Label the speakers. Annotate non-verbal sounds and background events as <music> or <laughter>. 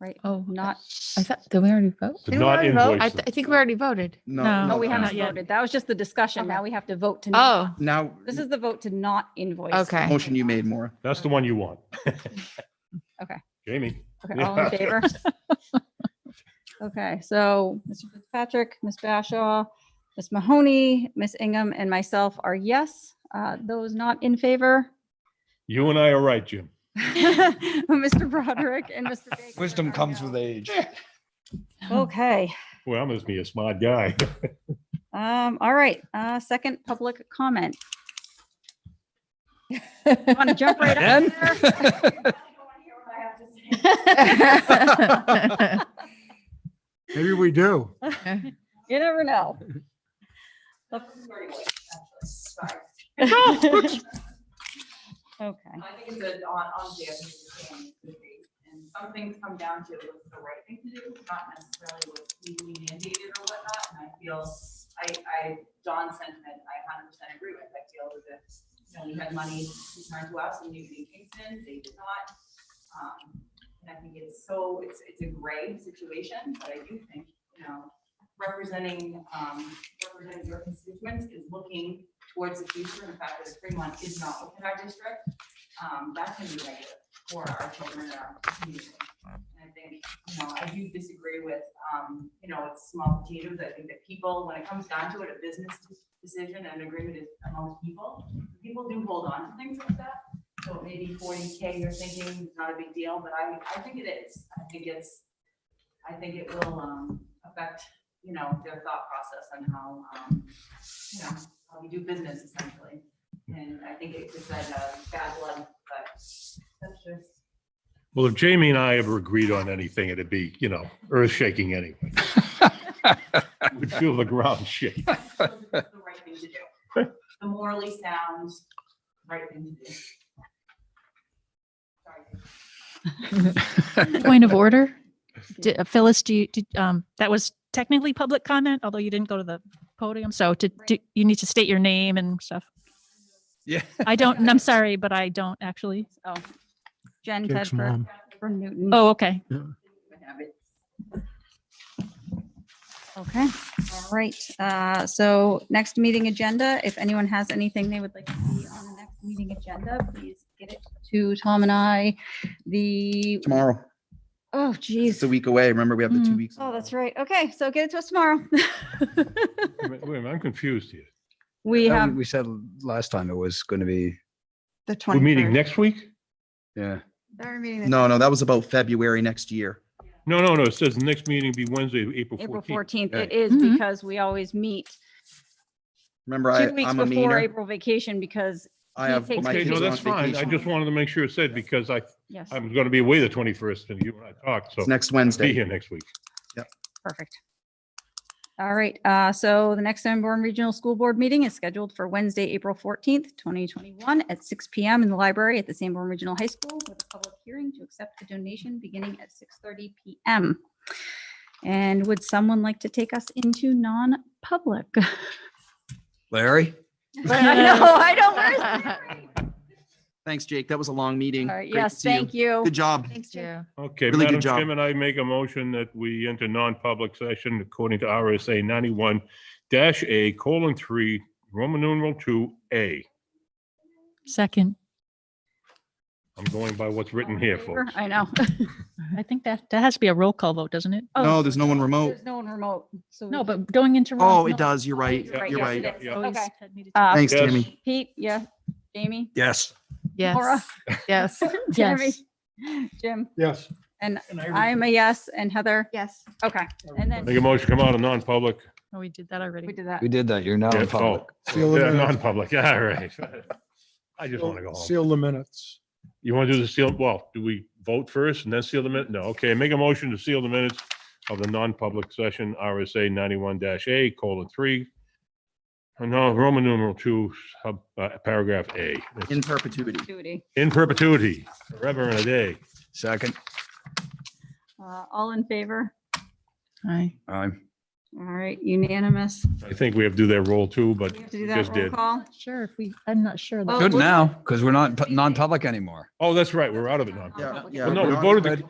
Speaker 1: right?
Speaker 2: Oh, I-
Speaker 1: Not,
Speaker 2: I thought, did we already vote?
Speaker 3: So
Speaker 4: Did we
Speaker 3: not
Speaker 4: already vote?
Speaker 3: invoices.
Speaker 5: I, th- I think we already voted.
Speaker 2: No.
Speaker 1: no, Oh, we
Speaker 2: not
Speaker 1: haven't
Speaker 2: yet.
Speaker 1: voted. That was just the discussion. Now we have to vote to. not-
Speaker 5: Oh,
Speaker 4: Now,
Speaker 1: This is the vote to not invoice.
Speaker 5: Okay.
Speaker 4: motion you made, Maura.
Speaker 3: That's the one you
Speaker 4: <laughs>
Speaker 3: want.
Speaker 1: Okay.
Speaker 3: Jamie,
Speaker 1: Okay, all in
Speaker 3: Yeah.
Speaker 4: <laughs>
Speaker 1: favor? Okay, so Mr. Fitzpatrick, Ms. Bashaw, Ms. Mahoney, Ms. Ingham, and myself are yes. Uh, Those not in favor, <laughs>
Speaker 3: you and I are right, Jim.
Speaker 1: Mr. Broderick and Mr. Baker.
Speaker 6: Wisdom
Speaker 1: are
Speaker 6: comes
Speaker 1: no.
Speaker 6: with age.
Speaker 1: Okay,
Speaker 3: Well, I must be a smart guy.
Speaker 4: <laughs>
Speaker 1: um, all right, uh, second public comment. Want to jump right in?
Speaker 7: <laughs>
Speaker 5: Oh.
Speaker 1: <laughs>
Speaker 8: Maybe we do.
Speaker 1: You never know.
Speaker 9: Sorry.
Speaker 1: Okay.
Speaker 9: I think it's a on, on the understanding of the debate, and some things come down to what's the right thing to do, not necessarily what's legally mandated or whatnot, and I feel, I, I, John's sentiment, I hundred percent agree with, I feel that if, you know, we had money returned to us in New York and Kingston, they did not. Um, And I think it's so, it's, it's a gray situation, but I do think, you know, representing, um, representing your constituents is looking towards the future, and the fact that Fremont is not within our district, um, that can be negative for our children and our community. And I think, you know, I do disagree with, um, you know, it's small potatoes. I think that people, when it comes down to it, a business decision and agreement is among people. People do hold on to things like that. So maybe forty K you're thinking is not a big deal, but I, I think it is. I think it's, I think it will, um, affect, you know, their thought process and how, um, you know, how we do business essentially. And I think it just said, uh, bad blood, but that's just.
Speaker 3: Well, if Jamie and I ever agreed on anything, it'd be, you know, earth shaking
Speaker 4: <laughs>
Speaker 3: anyway. We'd feel the ground shake.
Speaker 9: the right thing to do. The morally sound, right thing to do. Sorry.
Speaker 2: Point of order?
Speaker 7: Di- uh, Phyllis, do you, did, um, that was technically public comment, although you didn't go to the podium. So to, do, you need to state your name and stuff.
Speaker 4: Yeah.
Speaker 7: I don't, and I'm sorry, but I don't actually.
Speaker 1: Oh, Jen
Speaker 8: Jake's
Speaker 1: Tedford
Speaker 8: mom.
Speaker 1: from Newton.
Speaker 7: Oh, okay.
Speaker 1: Okay, all right. Uh, So next meeting agenda, if anyone has anything they would like to see on the next meeting agenda, please get it to Tom and I. The,
Speaker 4: <laughs> Tomorrow.
Speaker 1: oh geez.
Speaker 4: It's a week away. Remember, we have the two
Speaker 7: Mm.
Speaker 4: weeks.
Speaker 1: Oh, that's right. Okay, so get it to us tomorrow. <laughs>
Speaker 3: Wait a minute, wait a minute, I'm confused here.
Speaker 1: We
Speaker 6: No,
Speaker 1: have,
Speaker 6: We said last time it was going to be,
Speaker 10: The
Speaker 3: We're
Speaker 10: 23rd.
Speaker 3: meeting next week?
Speaker 6: yeah.
Speaker 10: Now we're meeting the-
Speaker 4: No, no, that was about February next year.
Speaker 3: No, no, no. It says the next meeting be Wednesday, April
Speaker 1: April 14th.
Speaker 3: 14th.
Speaker 4: Yeah.
Speaker 1: It is
Speaker 7: Mhm.
Speaker 1: because we always meet
Speaker 4: Remember, I,
Speaker 1: two weeks
Speaker 4: I'm a
Speaker 1: before
Speaker 4: meaner.
Speaker 1: April vacation because,
Speaker 4: I
Speaker 1: he
Speaker 4: have
Speaker 1: takes
Speaker 4: my
Speaker 3: Okay,
Speaker 4: kids
Speaker 3: no,
Speaker 4: are
Speaker 3: that's
Speaker 4: on
Speaker 3: fine. I
Speaker 4: vacation.
Speaker 3: just wanted to make sure it said because I,
Speaker 1: yes,
Speaker 3: I'm going to be away the 21st and you and I talked, so
Speaker 4: It's next
Speaker 3: be
Speaker 4: Wednesday.
Speaker 3: here next week.
Speaker 1: perfect. All right, uh, so the next Sanborn Regional School Board meeting is scheduled for Wednesday, April 14th, 2021 at six PM in the library at the Sanborn Regional High School with a public hearing to accept a donation beginning at 6:30 PM. And would someone like to take us into non-public? <laughs>
Speaker 6: Larry?
Speaker 1: I know, I know,
Speaker 7: <laughs>
Speaker 1: where's
Speaker 4: Thanks, Jake. That was a long meeting.
Speaker 1: All right,
Speaker 4: Great to
Speaker 1: yes,
Speaker 4: see you.
Speaker 1: thank you.
Speaker 4: Good job.
Speaker 5: Thanks,
Speaker 1: Jake.
Speaker 5: Jim.
Speaker 3: Okay,
Speaker 4: Really good
Speaker 3: Madam
Speaker 4: job.
Speaker 3: Chairman, I make a motion that we enter non-public session according to RSA ninety-one dash A colon three, Roman numeral two, A.
Speaker 7: Second.
Speaker 3: I'm going by what's written
Speaker 1: All
Speaker 3: here,
Speaker 1: in favor?
Speaker 3: folks.
Speaker 1: I know. <laughs>
Speaker 7: I think that, that has to be a roll call vote, doesn't it?
Speaker 1: Oh,
Speaker 4: No, there's no one remote.
Speaker 1: There's no one remote, so. we
Speaker 7: No,
Speaker 1: can-
Speaker 7: but going into. roll-
Speaker 4: Oh, it
Speaker 7: no,
Speaker 4: does. You're right.
Speaker 1: You're right,
Speaker 4: You're
Speaker 1: yes, it
Speaker 4: right.
Speaker 1: is.
Speaker 3: yeah.
Speaker 7: always
Speaker 1: Okay.
Speaker 7: had needed to-
Speaker 1: Uh,
Speaker 4: Thanks,
Speaker 3: Yes.
Speaker 4: Jamie.
Speaker 1: Pete, yeah, Jamie,
Speaker 6: Yes.
Speaker 1: Laura,
Speaker 5: Yes,
Speaker 1: <laughs>
Speaker 5: yes.
Speaker 1: Jeremy,
Speaker 7: <laughs> Yes.
Speaker 1: Jim,
Speaker 8: Yes.
Speaker 1: and I'm a yes, and Heather,
Speaker 10: Yes.
Speaker 1: okay, and then
Speaker 3: Make a motion, to come out of non-public.
Speaker 7: Oh, we did that already.
Speaker 1: we did that.
Speaker 6: We did that. You're now
Speaker 3: Yeah,
Speaker 6: in
Speaker 3: oh.
Speaker 6: public.
Speaker 8: See you
Speaker 3: Yeah,
Speaker 8: later.
Speaker 3: Non-public, <laughs> all right. I just want to go home.
Speaker 8: Seal the minutes.
Speaker 3: You want to do the seal, well, do we vote first and then seal the minute? No, okay, make a motion to seal the minutes of the non-public session, RSA ninety-one dash A colon three. No, Roman numeral two, sub- uh, paragraph A. It's
Speaker 4: In perpetuity.
Speaker 1: Duty.
Speaker 3: In perpetuity, forever and a day.
Speaker 6: Second.
Speaker 1: Uh, all in favor?
Speaker 5: Hi.
Speaker 6: I'm.
Speaker 1: All right, unanimous.
Speaker 3: I think we have to do that roll too,
Speaker 1: Do
Speaker 3: but
Speaker 1: we have to do
Speaker 3: we
Speaker 1: that
Speaker 3: just
Speaker 1: roll
Speaker 3: did.
Speaker 1: call?
Speaker 7: Sure, if we, I'm not sure. that-
Speaker 1: Oh,
Speaker 6: Good
Speaker 1: we're-
Speaker 6: now, because we're not pu- non-public anymore.
Speaker 3: Oh, that's right, we're out of it now.
Speaker 4: Yeah,
Speaker 1: Non-public.
Speaker 4: yeah.
Speaker 3: Well, no, we
Speaker 4: we're on-
Speaker 3: voted the